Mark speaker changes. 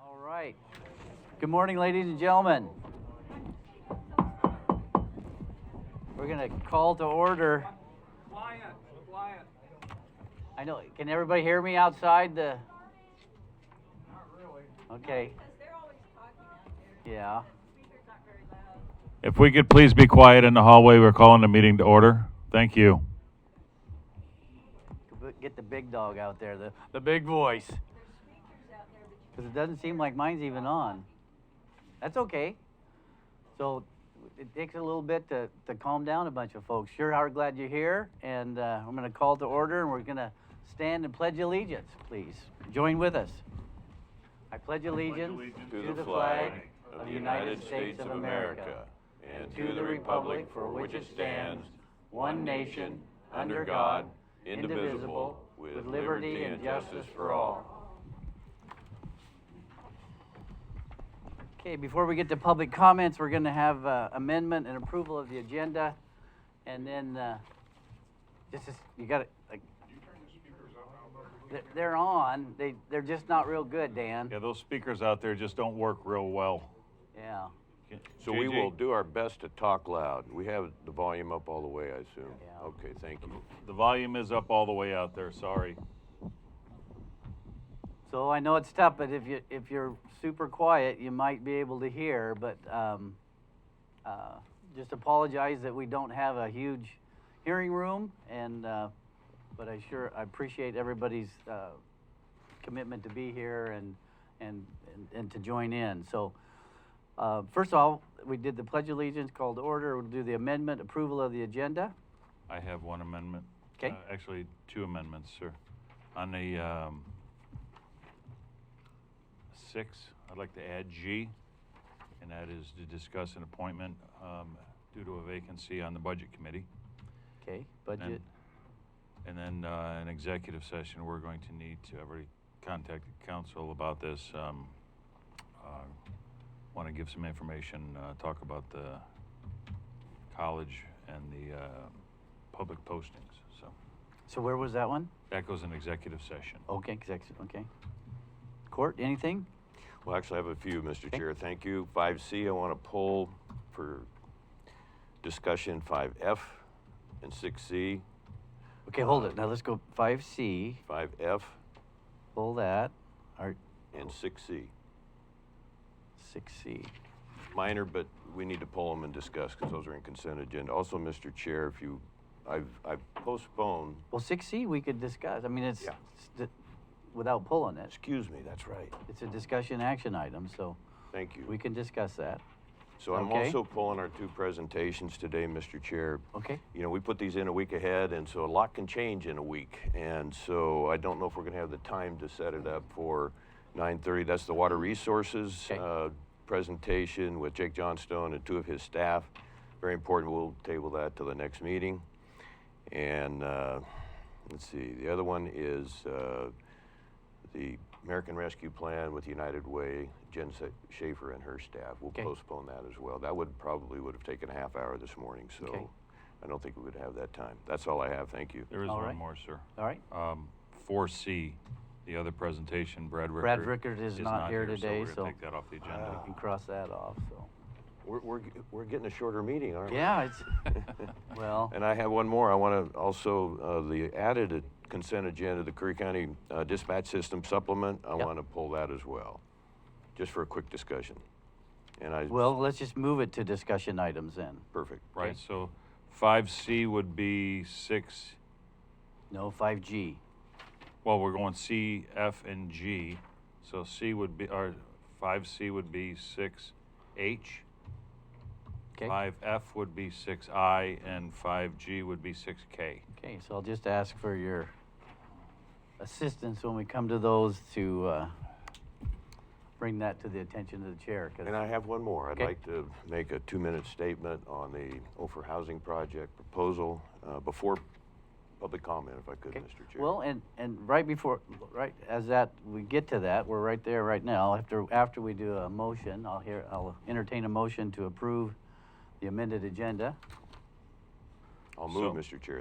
Speaker 1: All right. Good morning, ladies and gentlemen. We're going to call to order.
Speaker 2: Quiet, quiet.
Speaker 1: I know, can everybody hear me outside the?
Speaker 2: Not really.
Speaker 1: Okay,
Speaker 3: Because they're always talking out there.
Speaker 1: yeah.
Speaker 3: Speaker's not very loud.
Speaker 4: If we could please be quiet in the hallway, we're calling the meeting to order. Thank you.
Speaker 1: Get the big dog out there, the, the big voice.
Speaker 3: There's speakers out there, but
Speaker 1: Because it doesn't seem like mine's even on. That's okay. So it takes a little bit to, to calm down a bunch of folks. Sure are glad you're here. And uh, I'm going to call to order and we're going to stand and pledge allegiance, please. Join with us. I pledge allegiance
Speaker 5: To the flag of the United States of America and to the republic for which it stands, one nation, under God, indivisible, with liberty and justice for all.
Speaker 1: Okay, before we get to public comments, we're going to have uh, amendment and approval of the agenda. And then, uh, this is, you got to, like, They're- they're on. They, they're just not real good, Dan.
Speaker 4: Yeah, those speakers out there just don't work real well.
Speaker 1: Yeah.
Speaker 5: So we
Speaker 4: JJ?
Speaker 5: will do our best to talk loud. We have the volume up all the way, I assume.
Speaker 1: Yeah.
Speaker 5: Okay, thank you.
Speaker 4: The volume is up all the way out there, sorry.
Speaker 1: So I know it's tough, but if you if you're super quiet, you might be able to hear. But um, uh, just apologize that we don't have a huge hearing room, and uh, but I sure I appreciate everybody's uh, commitment to be here and and and, and to join in. So. Uh, first of all, we did the Pledge of Allegiance, call to order. We'll do the amendment, approval of the agenda.
Speaker 4: I have one amendment.
Speaker 1: 'Kay.
Speaker 4: Uh, Actually, two amendments, sir. On the, um, six, I'd like to add G, and that is to discuss an appointment, um, due to a vacancy on the budget committee.
Speaker 1: Okay,
Speaker 4: And then-
Speaker 1: budget.
Speaker 4: And then, uh, an executive session, we're going to need to, I've already contacted council about this, um, uh, want to give some information, uh, talk about the college and the, uh, public postings, so.
Speaker 1: So where was that one?
Speaker 4: That goes in executive session.
Speaker 1: Okay, executive, okay. Court, anything?
Speaker 5: Well, actually, I have a few, Mr. Chair. Thank you. 5C, I want to pull for discussion 5F and 6C.
Speaker 1: Okay, hold it. Now let's go five C,
Speaker 5: 5F
Speaker 1: pull that, or
Speaker 5: and 6C.
Speaker 1: six C.
Speaker 5: Minor, but we need to pull them and discuss because those are in consent agenda. Also, Mr. Chair, if you, I've, I've postponed,
Speaker 1: Well, six C we could discuss. I mean, it's,
Speaker 5: Yeah.
Speaker 1: it's di- without pulling it.
Speaker 5: excuse me, that's right.
Speaker 1: It's a discussion action item, so
Speaker 5: Thank you.
Speaker 1: we can discuss that.
Speaker 5: So I'm
Speaker 1: Okay.
Speaker 5: also pulling our two presentations today, Mr. Chair.
Speaker 1: Okay,
Speaker 5: You know, we put these in a week ahead, and so a lot can change in a week. And so I don't know if we're going to have the time to set it up for 9:30. That's the water resources
Speaker 1: Okay.
Speaker 5: uh, presentation with Jake Johnstone and two of his staff. Very important. We'll table that till the next meeting. And uh, let's see. The other one is uh, the American Rescue Plan with United Way. Jen Sa- Schaefer and her staff. We'll
Speaker 1: Okay.
Speaker 5: postpone that as well. That would probably would have taken a half hour this morning. So.
Speaker 1: Okay.
Speaker 5: I don't think we would have that time. That's all I have, thank you.
Speaker 4: There is
Speaker 1: All right.
Speaker 4: one more, sir.
Speaker 1: all right.
Speaker 4: Um, four C, the other presentation, Brad Rickard.
Speaker 1: Brad Rickard is not here today,
Speaker 4: we're
Speaker 1: so-
Speaker 4: gonna take that off the
Speaker 1: We
Speaker 5: Uh,
Speaker 4: agenda.
Speaker 1: can cross that off, so.
Speaker 5: We're, we're, g- we're getting a shorter meeting, aren't we?
Speaker 1: Yeah, it's, Ah. well,
Speaker 5: And I have one more. I want to also, uh, the added a- consent agenda, the Curry County uh, Dispatch System Supplement, I
Speaker 1: Yep.
Speaker 5: want to pull that as well, just for a quick discussion. And I,
Speaker 1: well, let's just move it to discussion items then.
Speaker 5: perfect.
Speaker 4: Right, so five C would be six,
Speaker 1: No, five G.
Speaker 4: well, we're going C, F, and G. So C would be, or five C would be six H.
Speaker 1: Okay?
Speaker 4: Five F would be six I, and five G would be six K.
Speaker 1: Okay, so I'll just ask for your assistance when we come to those to uh, bring that to the attention of the chair. 'cause-
Speaker 5: And I have one more. I'd
Speaker 1: Okay.
Speaker 5: like to make a two-minute statement on the Ophir Housing Project proposal uh, before public comment, if I could,
Speaker 1: Okay.
Speaker 5: Mr. Chair.
Speaker 1: Well, and, and right before, right, as that, we get to that, we're right there right now. After, after we do a motion, I'll hear, I'll entertain a motion to approve the amended agenda.
Speaker 5: I'll move,
Speaker 4: So-
Speaker 5: Mr. Chair.